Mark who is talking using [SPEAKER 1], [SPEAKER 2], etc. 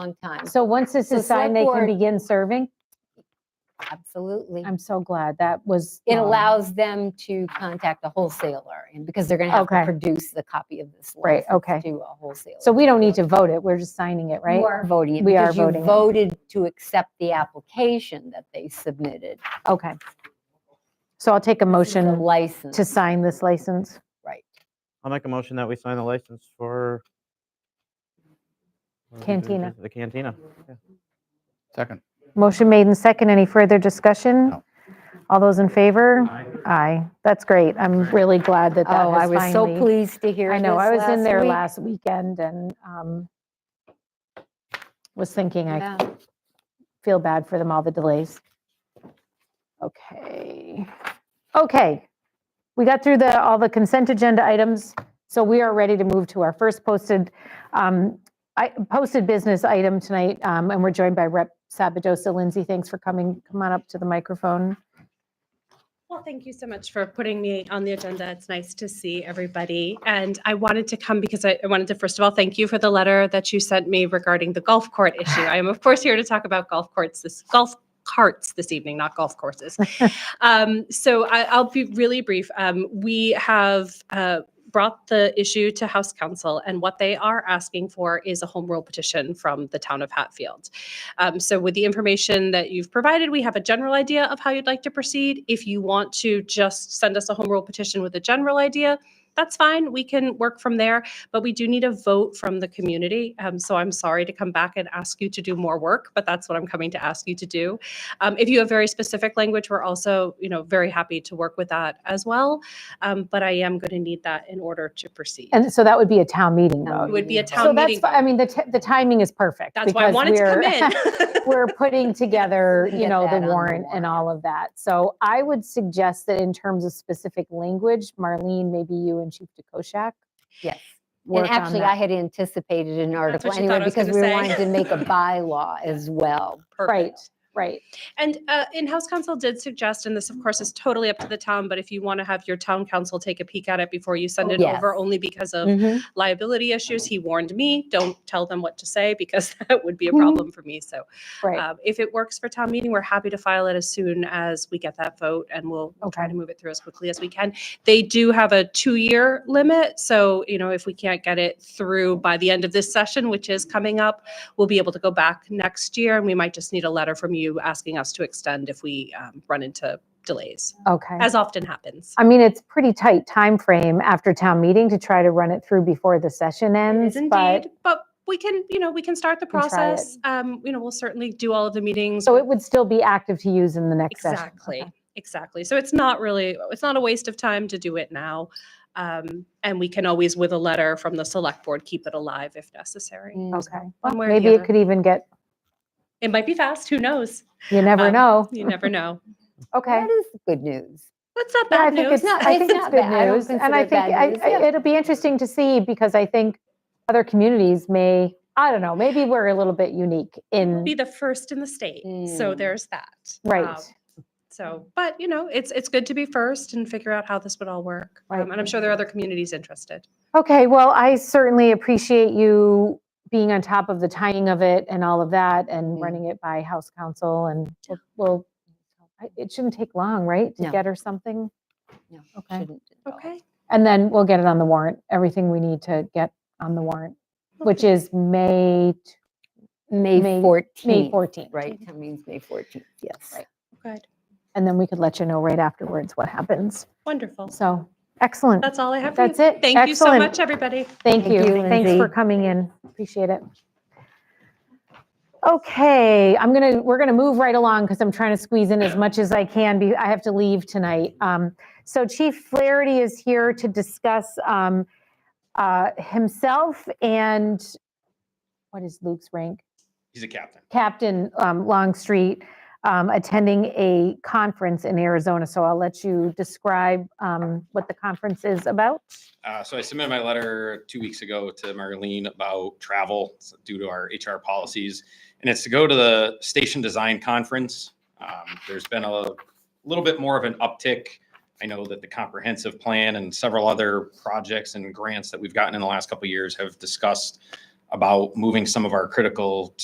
[SPEAKER 1] long time.
[SPEAKER 2] So once this
[SPEAKER 1] The
[SPEAKER 2] is signed, they can
[SPEAKER 1] select board-
[SPEAKER 2] begin serving?
[SPEAKER 1] Absolutely.
[SPEAKER 2] I'm so glad. That was.
[SPEAKER 1] It
[SPEAKER 2] um,
[SPEAKER 1] allows them to contact a wholesaler and because they're going to have to
[SPEAKER 2] Okay.
[SPEAKER 1] produce the copy of this.
[SPEAKER 2] Right,
[SPEAKER 1] license
[SPEAKER 2] okay.
[SPEAKER 1] To a wholesaler.
[SPEAKER 2] So we don't need to vote it. We're just signing it, right?
[SPEAKER 1] You are voting. it
[SPEAKER 2] We are
[SPEAKER 1] because you
[SPEAKER 2] voting it.
[SPEAKER 1] Voted to accept the application that they submitted.
[SPEAKER 2] Okay. So I'll take a
[SPEAKER 1] This is a
[SPEAKER 2] motion
[SPEAKER 1] License.
[SPEAKER 2] to sign this license.
[SPEAKER 1] Right.
[SPEAKER 3] I'll make a motion that we sign the license for. what are we doing
[SPEAKER 2] Cantina.
[SPEAKER 3] for The Cantina. yeah.
[SPEAKER 4] Second.
[SPEAKER 2] Motion made and second. Any further discussion?
[SPEAKER 4] No.
[SPEAKER 2] All those in favor? Aye. That's great. I'm really glad that that
[SPEAKER 1] Oh, I
[SPEAKER 2] has
[SPEAKER 1] was so
[SPEAKER 2] finally-
[SPEAKER 1] pleased to hear
[SPEAKER 2] I know,
[SPEAKER 1] this
[SPEAKER 2] I was in there
[SPEAKER 1] week.
[SPEAKER 2] last weekend and um, was thinking, I
[SPEAKER 1] Yeah.
[SPEAKER 2] feel bad for them, all the delays. Okay, okay. We got through the, all the consent agenda items, so we are ready to move to our first posted, um, I- posted business item tonight, um, and we're joined by Rep. Sabadosa. Lindsay, thanks for coming. Come on up to the microphone.
[SPEAKER 5] Well, thank you so much for putting me on the agenda. It's nice to see everybody. And I wanted to come because I I wanted to, first of all, thank you for the letter that you sent me regarding the golf court issue. I am, of course, here to talk about golf courts, this golf carts this evening, not golf courses. Um, So I- I'll be really brief. Um, We have uh, brought the issue to House Counsel, and what they are asking for is a home rule petition from the town of Hatfield. Um, so with the information that you've provided, we have a general idea of how you'd like to proceed. If you want to just send us a home rule petition with a general idea, that's fine. We can work from there, but we do need a vote from the community. Um, so I'm sorry to come back and ask you to do more work, but that's what I'm coming to ask you to do. Um, if you have very specific language, we're also, you know, very happy to work with that as well. Um, but I am going to need that in order to proceed.
[SPEAKER 2] And so that would be a town meeting
[SPEAKER 1] Town
[SPEAKER 2] vote.
[SPEAKER 5] it would be a
[SPEAKER 1] So
[SPEAKER 5] town
[SPEAKER 2] So that's,
[SPEAKER 5] meeting.
[SPEAKER 2] fi- I
[SPEAKER 5] vote.
[SPEAKER 2] mean, the, t- the timing is perfect.
[SPEAKER 5] that's why I
[SPEAKER 2] because
[SPEAKER 5] wanted to come
[SPEAKER 2] we're-
[SPEAKER 5] in.
[SPEAKER 2] We're putting together,
[SPEAKER 1] we
[SPEAKER 2] you
[SPEAKER 1] get
[SPEAKER 2] know,
[SPEAKER 1] that on
[SPEAKER 2] the
[SPEAKER 1] the
[SPEAKER 2] warrant and
[SPEAKER 1] warrant.
[SPEAKER 2] all of that. So I would suggest that in terms of specific language, Marlene, maybe you and Chief DeKoschak
[SPEAKER 1] Yes. And
[SPEAKER 2] work on
[SPEAKER 1] actually, I
[SPEAKER 2] that.
[SPEAKER 1] had anticipated an
[SPEAKER 5] That's
[SPEAKER 1] article
[SPEAKER 5] what you thought
[SPEAKER 1] anyway
[SPEAKER 5] I was
[SPEAKER 1] because we
[SPEAKER 5] gonna say.
[SPEAKER 1] wanted to make a bylaw as well.
[SPEAKER 2] Right.
[SPEAKER 5] Perfect.
[SPEAKER 2] Right,
[SPEAKER 5] And uh, in-house counsel did suggest, and this of course is totally up to the town, but if you want to have your town council take a peek at it before you send
[SPEAKER 1] Oh,
[SPEAKER 5] it over,
[SPEAKER 1] yes.
[SPEAKER 5] only because
[SPEAKER 2] Mm.
[SPEAKER 5] of
[SPEAKER 1] Mhm.
[SPEAKER 5] liability issues, he warned me, don't tell them what to say because that would be a
[SPEAKER 1] Mhm.
[SPEAKER 5] problem for me. So
[SPEAKER 2] right.
[SPEAKER 5] um, if it works for town meeting, we're happy to file it as soon as we get that vote and we'll we'll try
[SPEAKER 2] Okay.
[SPEAKER 5] to move it through as quickly as we can. They do have a two-year limit, so you know, if we can't get it through by the end of this session, which is coming up, we'll be able to go back next year and we might just need a letter from you asking us to extend if we um, run into delays,
[SPEAKER 2] Okay.
[SPEAKER 5] as often happens.
[SPEAKER 2] I mean, it's pretty tight time frame after town meeting to try to run it through before the session ends,
[SPEAKER 5] is
[SPEAKER 2] but,
[SPEAKER 5] indeed, but we can, you know, we can start the
[SPEAKER 2] can try it.
[SPEAKER 5] process. Um, you know, we'll certainly do all of the meetings.
[SPEAKER 2] so
[SPEAKER 5] We'll
[SPEAKER 2] it would still be active to use in the next session.
[SPEAKER 5] Exactly,
[SPEAKER 2] Okay.
[SPEAKER 5] exactly. So it's not really, it's not a waste of time to do it now. Um, And we can always, with a letter from the select board, keep it alive if necessary.
[SPEAKER 1] Mm.
[SPEAKER 2] Okay. Well,
[SPEAKER 5] One way or the
[SPEAKER 2] Maybe it
[SPEAKER 5] other.
[SPEAKER 2] could even get,
[SPEAKER 5] It might be fast, who knows?
[SPEAKER 2] you never
[SPEAKER 5] Um,
[SPEAKER 2] know.
[SPEAKER 5] You never know.
[SPEAKER 2] Okay.
[SPEAKER 1] That is good news.
[SPEAKER 5] That's not
[SPEAKER 2] Yeah, I
[SPEAKER 5] bad
[SPEAKER 2] think
[SPEAKER 5] news.
[SPEAKER 2] it's,
[SPEAKER 1] not-
[SPEAKER 2] I
[SPEAKER 1] it's
[SPEAKER 2] think it's
[SPEAKER 1] not
[SPEAKER 2] good
[SPEAKER 1] bad. I don't
[SPEAKER 2] news, and I
[SPEAKER 1] consider
[SPEAKER 2] think
[SPEAKER 1] it
[SPEAKER 2] I-
[SPEAKER 1] bad news,
[SPEAKER 2] I-
[SPEAKER 1] yeah.
[SPEAKER 2] it'll be interesting to see, because I think other communities may, I don't know, maybe we're a little bit unique in,
[SPEAKER 5] Be the first in the state, so
[SPEAKER 1] Mm.
[SPEAKER 5] there's that.
[SPEAKER 2] right,
[SPEAKER 5] Um, So, but you know, it's, it's good to be first and figure out how this would all work.
[SPEAKER 2] Right.
[SPEAKER 5] Um, And I'm sure there are other communities interested.
[SPEAKER 2] okay, well, I certainly appreciate you being on top of the timing of it and all of that, and
[SPEAKER 1] Mm.
[SPEAKER 2] running it by House Counsel, and we'll- we'll, I- it shouldn't take long, right, to
[SPEAKER 1] No.
[SPEAKER 2] get her something?
[SPEAKER 1] No, it
[SPEAKER 2] Okay.
[SPEAKER 1] shouldn't at all.
[SPEAKER 5] Okay.
[SPEAKER 2] And then we'll get it on the warrant, everything we need to get on the warrant, which is May, t- May-
[SPEAKER 1] May
[SPEAKER 2] May
[SPEAKER 1] 14th.
[SPEAKER 2] May 14th.
[SPEAKER 1] Right, town meeting's May 14th, yes.
[SPEAKER 2] Right.
[SPEAKER 5] Good,
[SPEAKER 2] And then we could let you know right afterwards what happens.
[SPEAKER 5] wonderful.
[SPEAKER 2] So, excellent.
[SPEAKER 5] That's all I have for you.
[SPEAKER 2] That's it.
[SPEAKER 5] Thank you so
[SPEAKER 2] Excellent.
[SPEAKER 5] much, everybody.
[SPEAKER 2] Thank
[SPEAKER 1] Thank
[SPEAKER 2] you.
[SPEAKER 1] you,
[SPEAKER 2] Thanks for
[SPEAKER 1] Lindsay.
[SPEAKER 2] coming in. Appreciate it. Okay, I'm gonna, we're gonna move right along because I'm trying to squeeze in as much as I can. be- I have to leave tonight. Um, So Chief Flaherty is here to discuss um, uh, himself and, what is Luke's rank?
[SPEAKER 6] He's a captain.
[SPEAKER 2] Captain um, Longstreet um, attending a conference in Arizona. So I'll let you describe um, what the conference is about.
[SPEAKER 6] Uh, so I submitted my letter two weeks ago to Marlene about travel It's due to our HR policies. And it's to go to the station design conference. Um, there's been a little bit more of an uptick. I know that the comprehensive plan and several other projects and grants that we've gotten in the last couple of years have discussed about moving some of our critical